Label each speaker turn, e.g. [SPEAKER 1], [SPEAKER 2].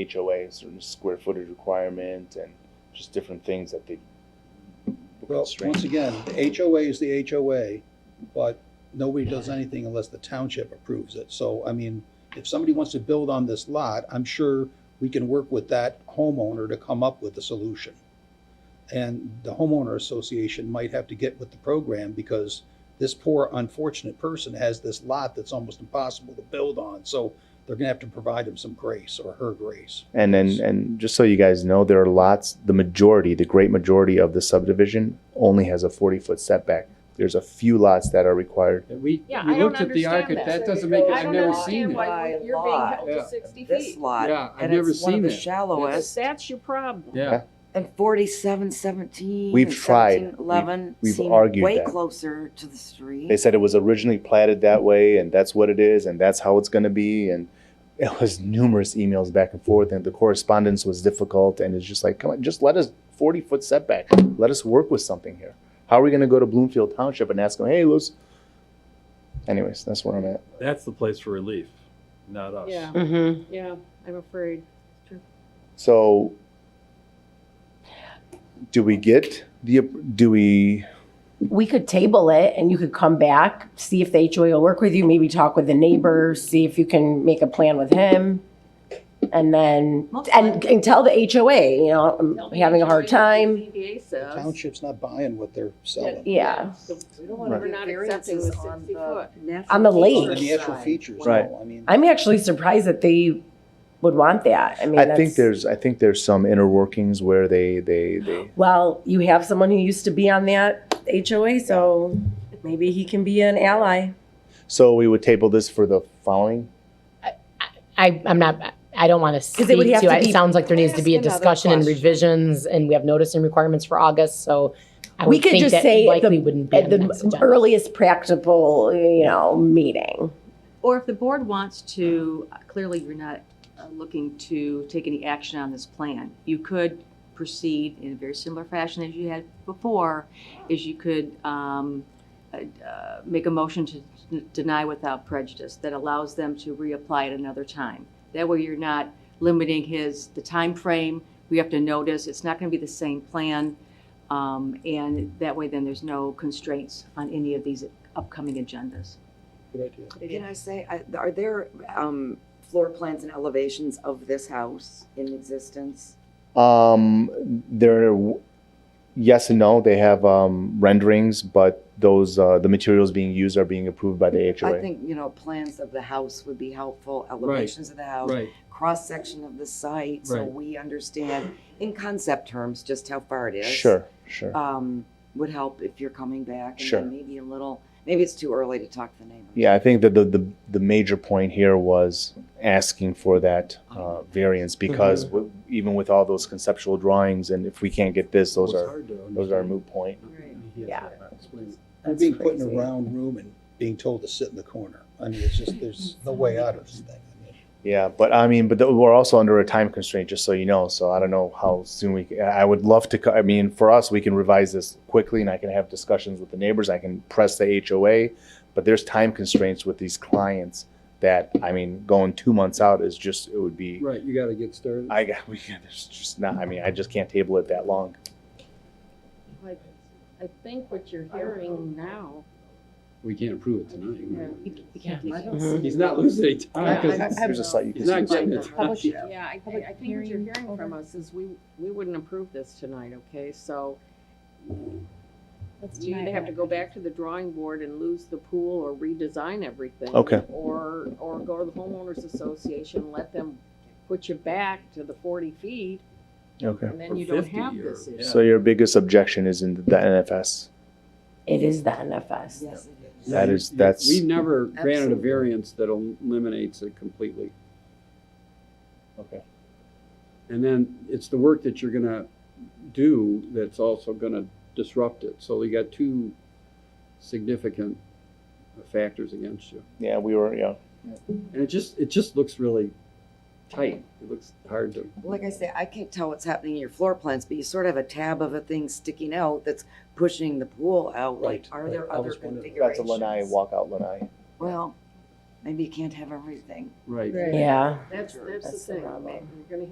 [SPEAKER 1] HOA, a certain square footage requirement, and just different things that they.
[SPEAKER 2] Well, once
[SPEAKER 1] constrain.
[SPEAKER 2] again, the HOA is the HOA, but nobody does anything unless the township approves it. So, I mean, if somebody wants to build on this lot, I'm sure we can work with that homeowner to come up with a solution. And the homeowner association might have to get with the program because this poor unfortunate person has this lot that's almost impossible to build on. So they're gonna have to provide him some grace or her grace.
[SPEAKER 1] And then, and just so you guys know, there are lots, the majority, the great majority of the subdivision only has a forty foot setback. There's a few lots that are required.
[SPEAKER 3] That We,
[SPEAKER 4] Yeah,
[SPEAKER 3] we
[SPEAKER 4] I don't
[SPEAKER 3] looked at the
[SPEAKER 4] understand
[SPEAKER 3] architect,
[SPEAKER 4] that.
[SPEAKER 3] that doesn't make, it.
[SPEAKER 4] I
[SPEAKER 3] I've
[SPEAKER 4] don't
[SPEAKER 3] never
[SPEAKER 4] understand
[SPEAKER 3] seen it.
[SPEAKER 4] why
[SPEAKER 5] By
[SPEAKER 4] you're being
[SPEAKER 5] law,
[SPEAKER 4] held
[SPEAKER 3] yeah.
[SPEAKER 4] to sixty
[SPEAKER 5] This
[SPEAKER 4] feet.
[SPEAKER 5] lot,
[SPEAKER 3] Yeah, I've
[SPEAKER 5] and
[SPEAKER 3] never
[SPEAKER 5] it's one
[SPEAKER 3] seen
[SPEAKER 5] of the
[SPEAKER 3] that.
[SPEAKER 5] shallowest,
[SPEAKER 4] That's your problem.
[SPEAKER 3] Yeah,
[SPEAKER 5] and forty-seven seventeen.
[SPEAKER 1] We've tried. We've-
[SPEAKER 5] Eleven
[SPEAKER 1] we've
[SPEAKER 5] seem
[SPEAKER 1] argued
[SPEAKER 5] way
[SPEAKER 1] that.
[SPEAKER 5] closer to the
[SPEAKER 1] They
[SPEAKER 5] street.
[SPEAKER 1] said it was originally platted that way, and that's what it is, and that's how it's gonna be, and it was numerous emails back and forth, and the correspondence was difficult, and it's just like, come on, just let us forty foot setback. Let us work with something here. How are we gonna go to Bloomfield Township and ask them, hey, let's Anyways, that's where I'm at.
[SPEAKER 6] That's the place for relief, not us.
[SPEAKER 4] Yeah,
[SPEAKER 7] Mm-hmm.
[SPEAKER 4] yeah, I'm afraid.
[SPEAKER 1] So, do we get the, do we,
[SPEAKER 7] we could table it and you could come back, see if the HOA will work with you, maybe talk with the neighbor, see if you can make a plan with him. And then, and, and tell the HOA, you know, I'm having a hard time.
[SPEAKER 4] ZBA
[SPEAKER 2] The
[SPEAKER 4] says.
[SPEAKER 2] township's not buying what they're selling.
[SPEAKER 7] Yeah.
[SPEAKER 4] So
[SPEAKER 5] We don't
[SPEAKER 4] We're
[SPEAKER 5] give
[SPEAKER 4] not
[SPEAKER 5] variances
[SPEAKER 4] accepting the
[SPEAKER 5] on
[SPEAKER 4] 60 foot.
[SPEAKER 5] natural
[SPEAKER 7] On the
[SPEAKER 2] And
[SPEAKER 5] features
[SPEAKER 7] lake.
[SPEAKER 2] the actual
[SPEAKER 5] side.
[SPEAKER 2] features, no,
[SPEAKER 1] Right.
[SPEAKER 2] I mean.
[SPEAKER 7] I'm actually surprised that they would want that. I mean,
[SPEAKER 1] I think
[SPEAKER 7] that's-
[SPEAKER 1] there's, I think there's some inner workings where they, they, they,
[SPEAKER 7] Well, you have someone who used to be on that HOA, so maybe he can be an ally.
[SPEAKER 1] so we would table this for the following?
[SPEAKER 8] I, I'm not, I don't want to
[SPEAKER 7] it
[SPEAKER 8] speak
[SPEAKER 7] would have
[SPEAKER 8] to,
[SPEAKER 7] to
[SPEAKER 8] it.
[SPEAKER 7] be-
[SPEAKER 8] it sounds like there needs to be a
[SPEAKER 5] Ask another
[SPEAKER 8] discussion and
[SPEAKER 5] question.
[SPEAKER 8] revisions, and we have notice and requirements for August, so I
[SPEAKER 7] We
[SPEAKER 8] would
[SPEAKER 7] could
[SPEAKER 8] think
[SPEAKER 7] just
[SPEAKER 8] that
[SPEAKER 7] say at
[SPEAKER 8] likely
[SPEAKER 7] the-
[SPEAKER 8] wouldn't be
[SPEAKER 7] At
[SPEAKER 8] on the next
[SPEAKER 7] the
[SPEAKER 8] agenda.
[SPEAKER 7] earliest practical, you know, meeting.
[SPEAKER 9] Or if the board wants to, clearly you're not uh, looking to take any action on this plan. You could proceed in a very similar fashion as you had before, is you could um, uh, uh, make a motion to deny without prejudice that allows them to reapply at another time. That way you're not limiting his, the time frame. We have to notice, it's not going to be the same plan. um, And that way then there's no constraints on any of these upcoming agendas.
[SPEAKER 2] Good idea.
[SPEAKER 5] Can I say, I- are there, um, floor plans and elevations of this house in existence?
[SPEAKER 1] Um, there, yes and no. They have um, renderings, but those uh, the materials being used are being approved by the HOA.
[SPEAKER 5] I think, you know, plans of the house would be helpful, elevations of the house,
[SPEAKER 3] right.
[SPEAKER 5] cross-section of the site, so
[SPEAKER 3] Right.
[SPEAKER 5] we understand in concept terms just how far it is.
[SPEAKER 1] sure, sure.
[SPEAKER 5] um, would help if you're coming back. and
[SPEAKER 1] Sure.
[SPEAKER 5] then Maybe a little, maybe it's too early to talk to the neighbor.
[SPEAKER 1] yeah, I think that the, the the major point here was asking for that
[SPEAKER 5] Uh-huh.
[SPEAKER 1] uh, variance because w- even with all those conceptual drawings, and if we can't get this, those are those are moot point.
[SPEAKER 7] Yeah.
[SPEAKER 2] You're being put in a round room and being told to sit in the corner. I mean, it's just, there's no way out of this thing. I mean,
[SPEAKER 1] Yeah, but I mean, but th- we're also under a time constraint, just so you know. So I don't know how soon we. c- I would love to. co- I mean, for us, we can revise this quickly, and I can have discussions with the neighbors. I can press the HOA, but there's time constraints with these clients. That I mean, going two months out is just it would be.
[SPEAKER 3] Right, you gotta get started.
[SPEAKER 1] I got. We, there's just not. I mean, I just can't table it that long.
[SPEAKER 4] I I think what you're hearing now.
[SPEAKER 3] We can't approve it tonight.
[SPEAKER 8] Mhm.
[SPEAKER 3] He's not losing any time,
[SPEAKER 4] I-
[SPEAKER 3] because
[SPEAKER 1] There's a slight you
[SPEAKER 3] he's
[SPEAKER 1] can
[SPEAKER 3] not
[SPEAKER 1] see.
[SPEAKER 3] getting it.
[SPEAKER 4] Yeah, I think, I think what you're hearing from us is we, we wouldn't approve this tonight, okay? So you either have to go back to the drawing board and lose the pool or redesign everything.
[SPEAKER 1] Okay.
[SPEAKER 4] Or, or go to the homeowners association, let them put you back to the forty feet,
[SPEAKER 1] Okay.
[SPEAKER 4] and
[SPEAKER 3] Or
[SPEAKER 4] then you don't
[SPEAKER 3] 50
[SPEAKER 4] have
[SPEAKER 3] or-
[SPEAKER 4] this issue.
[SPEAKER 1] So your biggest objection is in the NFS.
[SPEAKER 7] It is the
[SPEAKER 5] Yes,
[SPEAKER 7] NFS.
[SPEAKER 5] it is.
[SPEAKER 1] That is- that's-
[SPEAKER 3] We've never granted a
[SPEAKER 5] Absolutely.
[SPEAKER 3] variance that eliminates it completely.
[SPEAKER 1] Okay.
[SPEAKER 3] And then it's the work that you're gonna do that's also gonna disrupt it. So you got two significant factors against you.
[SPEAKER 1] Yeah, we were. Yeah.
[SPEAKER 3] And it just, it just looks really tight. It looks hard to.
[SPEAKER 5] Like I say, I can't tell what's happening in your floor plans, but you sort of have a tab of a thing sticking out that's pushing the pool out. Like,
[SPEAKER 2] Right,
[SPEAKER 5] are
[SPEAKER 2] right.
[SPEAKER 5] there
[SPEAKER 2] I
[SPEAKER 5] other
[SPEAKER 2] was wondering.
[SPEAKER 1] That's a lanai
[SPEAKER 5] configurations?
[SPEAKER 1] walkout lanai.
[SPEAKER 5] Well, maybe you can't have everything.
[SPEAKER 3] Right.
[SPEAKER 7] Yeah.
[SPEAKER 4] That's, that's
[SPEAKER 7] That's
[SPEAKER 4] the
[SPEAKER 7] the
[SPEAKER 4] thing.
[SPEAKER 7] problem.
[SPEAKER 4] You're gonna